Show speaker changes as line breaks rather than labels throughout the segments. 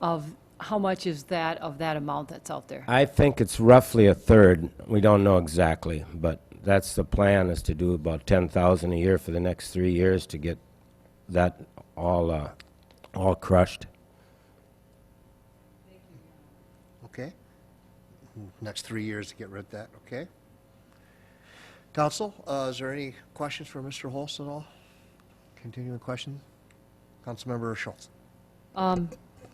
of, how much is that of that amount that's out there?
I think it's roughly a third. We don't know exactly, but that's the plan, is to do about 10,000 a year for the next three years to get that all, uh, all crushed.
Okay? Next three years to get rid of that, okay? Council, uh, is there any questions for Mr. Holst at all? Continuing questions? Councilmember Schultz?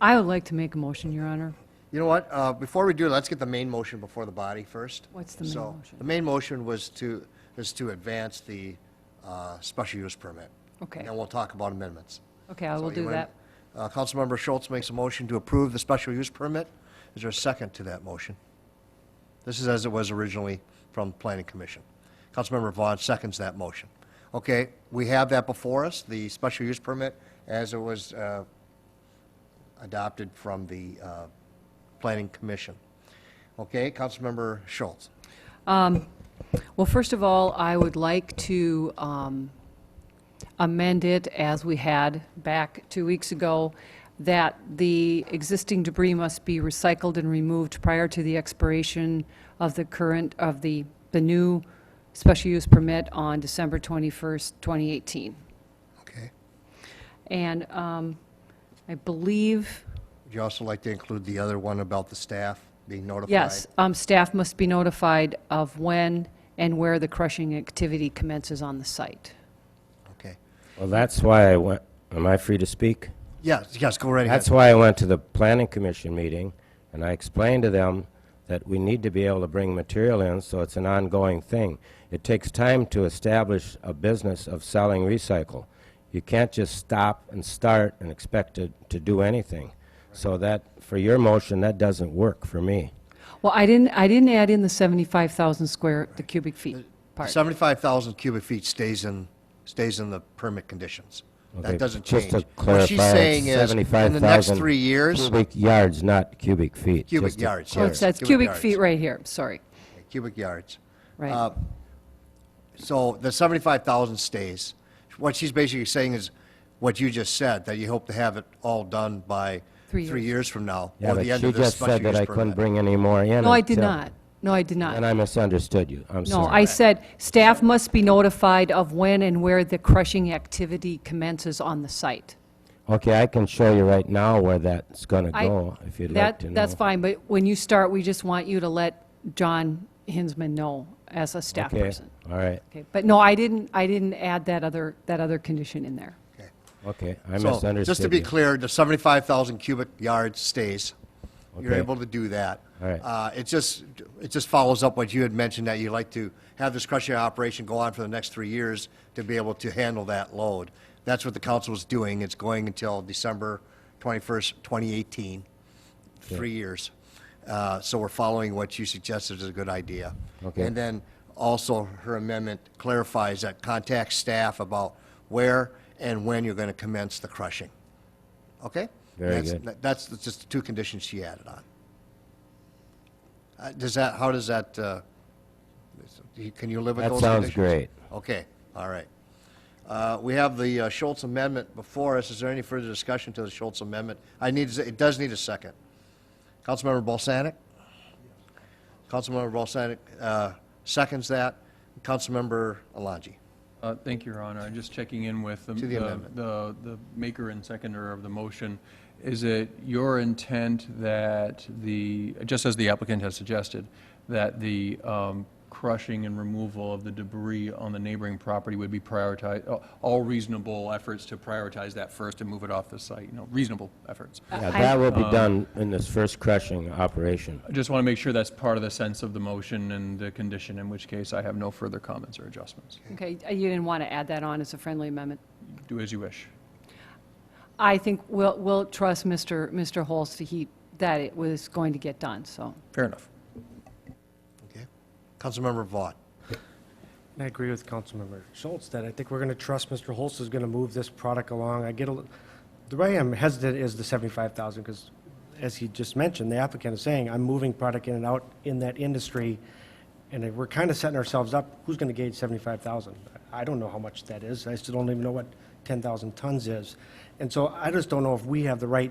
I would like to make a motion, Your Honor.
You know what, uh, before we do, let's get the main motion before the body first.
What's the main
So,
motion?
The main motion was to, is to advance the uh, special use permit.
Okay.
And we'll talk about amendments.
Okay, I will
So you
do
wanna-
that.
uh, Councilmember Schultz makes a motion to approve the special use permit. Is there a second to that motion? This is as it was originally from Planning Commission. Councilmember Vaughn seconds that motion. Okay, we have that before us, the special use permit, as it was uh, adopted from the uh, Planning Commission. Okay, Councilmember Schultz.
Well, first of all, I would like to um, amend it as we had back two weeks ago, that the existing debris must be recycled and removed prior to the expiration of the current, of the, the new special use permit on December 21st, 2018.
Okay.
And um, I believe,
Would you also like to include the other one about the staff being notified?
yes, um, staff must be notified of when and where the crushing activity commences on the site.
Okay.
Well, that's why I went, am I free to speak?
Yes, yes, go right ahead.
That's why I went to the planning commission meeting, and I explained to them that we need to be able to bring material in, so it's an ongoing thing. It takes time to establish a business of selling recycle. You can't just stop and start and expect to, to do anything. So that, for your motion, that doesn't work for me.
Well, I didn't, I didn't add in the 75,000 square, the cubic feet part.
75,000 cubic feet stays in, stays in the permit conditions.
Okay,
That doesn't
just
change.
to
What she's
clarify, it's
saying is, in the next
75,000
three years,
Cubic yards, not cubic feet.
cubic
just to
yards.
Oh,
clarify.
it's, that's cubic feet right here, sorry,
right? Cubic yards.
right.
Uh, So the 75,000 stays. What she's basically saying is what you just said, that you hope to have it all done by
Three
three years from now,
Yeah,
or the
but
end
she
of this
just said
special
that I
use
couldn't
permit.
bring any more in.
No, I did
until-
not. No, I did
And
not.
I misunderstood you. I'm sorry.
No, I said, staff must be notified of when and where the crushing activity commences on the site.
Okay, I can show you right now where that's gonna
I-
go, if you'd like
That,
to know.
that's fine, but when you start, we just want you to let John Hinsman know as a staff
Okay,
person.
all right,
Okay, But no, I didn't, I didn't add that other, that other condition in there.
Okay.
okay, I
So,
misunderstood
just to be
you.
clear, the 75,000 cubic yards stays. You're
Okay.
able to do that.
All right.
Uh, It just, it just follows up what you had mentioned, that you like to have this crushing operation go on for the next three years to be able to handle that load. That's what the council is doing. It's going until December 21st, 2018, three years. Uh, So we're following what you suggested is a good idea.
Okay.
And then also, her amendment clarifies that contact staff about where and when you're going to commence the crushing. Okay?
Very
That's-
good.
That's the- just the two conditions she added on. Uh, Does that, how does that, uh, can you live with
That
those
sounds
conditions?
great.
Okay, all right. Uh, We have the uh, Schultz Amendment before us. Is there any further discussion to the Schultz Amendment? I need, it does need a second. Councilmember Balsanic? Councilmember Balsanic uh, seconds that. Councilmember Alangi?
Uh, Thank you, Your Honor. I'm just checking in with the-
To the
the
amendment.
the the maker and seconder of the motion. Is it your intent that the, just as the applicant has suggested, that the um, crushing and removal of the debris on the neighboring property would be prioritized, all reasonable efforts to prioritize that first and move it off the site, you know, reasonable efforts?
Yeah,
I-
that will be done in this first crushing operation.
I just want to make sure that's part of the sense of the motion and the condition, in which case I have no further comments or adjustments.
Okay, uh, you didn't want to add that on as a friendly amendment?
Do as you wish.
I think we'll, we'll trust Mr. Mr. Holst to he, that it was going to get done, so.
Fair enough.
Okay. Councilmember Vaughn?
And I agree with Councilmember Schultz that I think we're going to trust Mr. Holst is going to move this product along. I get a, li- the way I'm hesitant is the 75,000 because, as he just mentioned, the applicant is saying, I'm moving product in and out in that industry, and if we're kind of setting ourselves up, who's going to gauge 75,000? I don't know how much that is. I still don't even know what 10,000 tons is. And so I just don't know if we have the right